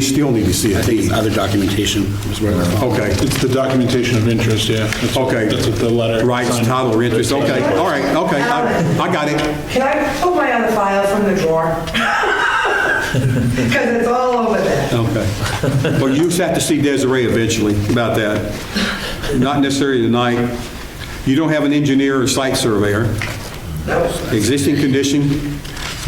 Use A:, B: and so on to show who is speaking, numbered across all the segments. A: We still need to see a
B: I think it's
A: deed.
B: other documentation is where they're from.
A: Okay,
C: It's the documentation of interest, yeah. That's what-
A: okay.
C: That's what the letter.
A: Rights,
C: signed.
A: title, or interest, okay, all right, okay, I I got it.
D: Can I pull my other file from the drawer? Because it's all over there.
A: Okay. Well, you just have to see Desiree eventually about that. Not necessarily tonight. You don't have an engineer or site surveyor. Existing condition,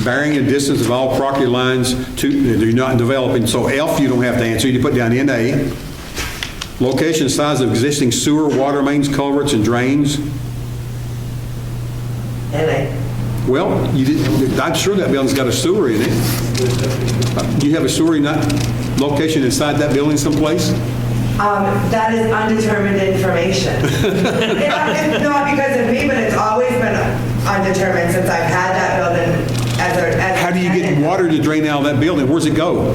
A: bearing and distance of all property lines to, they're not developing, so F you don't have to answer, you put down NA. Location, size of existing sewer, water mains, culverts, and drains.
D: And
A: Well, you didn't, I'm sure that building's got a sewer in it. Do you have a sewer in that location inside that building someplace?
D: I, um, that is undetermined information. It's not- it's not because of me, but it's always been undetermined since I've had that building as a, as a
A: How do you get
D: tenant.
A: water to drain out of that building? Where's it go?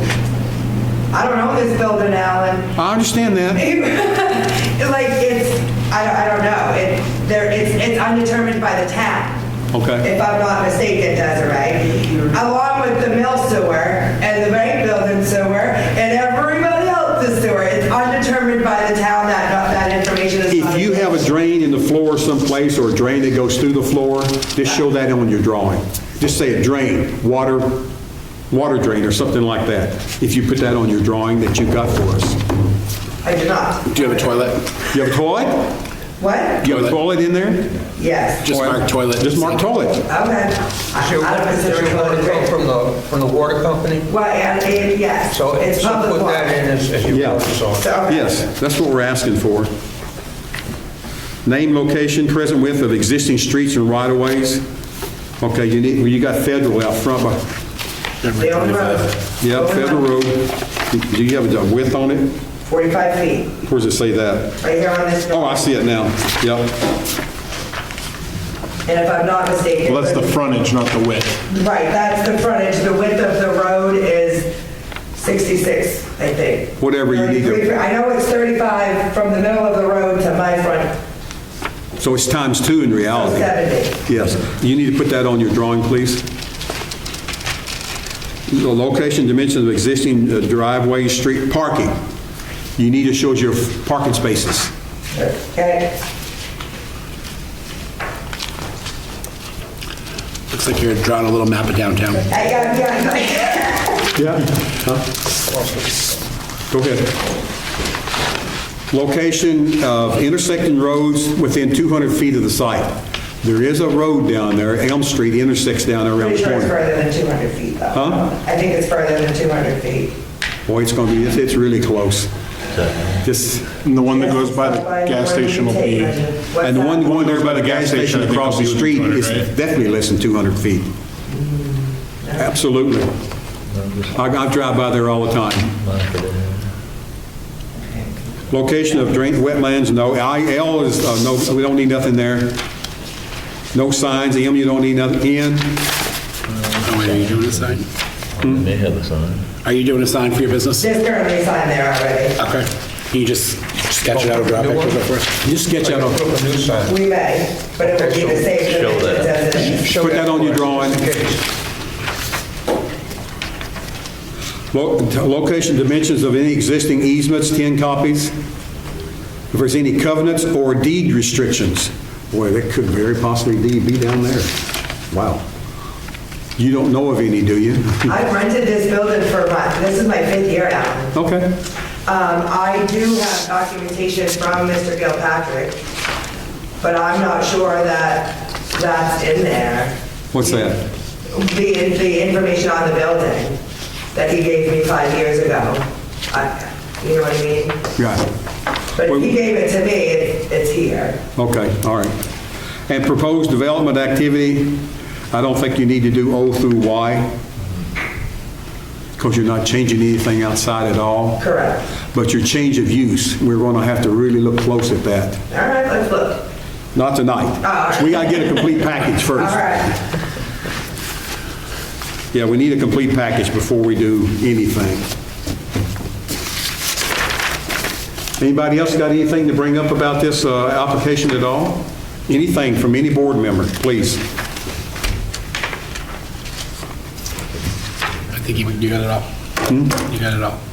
D: I don't know this building, Alan.
A: I understand that.
D: Like, it's, I don't, I don't know. It, there, it's, it's undetermined by the town.
A: Okay.
D: If I'm not mistaken, Desiree. Along with the mill sewer and the bank building sewer and everybody else's sewer. It's undetermined by the town that, that information is. not-
A: If you have a drain in the floor someplace or a drain that goes through the floor, just show that on your drawing. Just say a drain, water, water drain or something like that. If you put that on your drawing that you've got for us.
D: I do not.
B: Do you have a toilet?
A: You have a toilet?
D: What?
A: You have a toilet in there?
D: Yes.
B: Just mark toilet.
A: Just mark toilet.
D: Okay. I-
E: Sure,
D: I don't
E: is
D: consider
E: there
D: it
E: water
D: public
E: come
D: drain.
E: from the, from the water company?
D: Well, and, and yes.
E: So,
D: It's
E: so
D: public
E: put
D: water.
E: that in as, as your
A: Yeah.
E: purpose order.
D: So-
A: Yes, that's what we're asking for. Name, location, present width of existing streets and right-of-ways. Okay, you need, well, you got federal out front, but
D: They own road.
A: Yeah, Federal Road. Do you have a width on it?
D: 45 feet,
A: Where does it say that?
D: right here on this.
A: Oh, I see it now. Yep.
D: And if I'm not mistaken.
C: Well, that's the frontage, not the width.
D: Right, that's the frontage, the width of the road is 66, I think.
A: Whatever you need to-
D: 33. I know it's 35 from the middle of the road to my front,
A: So it's times two in reality.
D: 70.
A: Yes. You need to put that on your drawing, please. The location, dimensions of existing uh, driveway, street, parking. You need to show your parking spaces.
D: Okay,
B: Looks like you're drawing a little map of downtown.
D: I got, yeah,
A: Yeah. Go ahead. Location of intersecting roads within 200 feet of the site. There is a road down there, Elm Street intersects down there around
D: pretty
A: the
D: sure it's
A: corner.
D: further than 200 feet, though.
A: Huh?
D: I think it's further than 200 feet.
A: Boy, it's going to be, it's- it's really close. This,
C: And the one that goes by the gas
D: Where do you
C: station will be,
D: take, Reggie? What's
A: and the one
D: that?
A: going there by the gas station across the street is definitely less than 200 feet. Absolutely. I I drive by there all the time. Location of drain, wetlands, no. IL is, uh, no, we don't need nothing there. No signs, M, you don't need nothing. N,
B: Oh, wait, Are you doing a sign?
F: Hmm? They have a sign.
B: Are you doing a sign for your business?
D: There's currently a sign there already.
B: Okay. Can you just sketch it out or draw
E: New one?
B: pictures up for us?
A: just sketch out,
E: Put
A: a-
E: up a new sign.
D: We may, but it would be the same
F: Show
D: dimensions
F: that.
D: as it is.
A: put that on your drawing. Lo- Location, dimensions of any existing easements, 10 copies. If there's any covenants or deed restrictions. Boy, that could very possibly be be down there. Wow. You don't know of any, do you?
D: I've rented this building for my, this is my fifth year now.
A: Okay.
D: Um, I do have documentation from Mr. Gilpatrick, but I'm not sure that that's in there.
A: What's that?
D: The, the information on the building that he gave me five years ago. I- You know what I mean?
A: Got it.
D: But if he gave it to me, it- it's here.
A: Okay, all right. And proposed development activity, I don't think you need to do O through Y, because you're not changing anything outside at all.
D: Correct.
A: But your change of use, we're going to have to really look close at that.
D: All right, let's look.
A: Not tonight.
D: Oh.
A: We got to get a complete package
D: All
A: first.
D: right.
A: Yeah, we need a complete package before we do anything. Anybody else got anything to bring up about this uh, application at all? Anything from any board member, please? Hmm?
B: I think you you got it all. You got it all.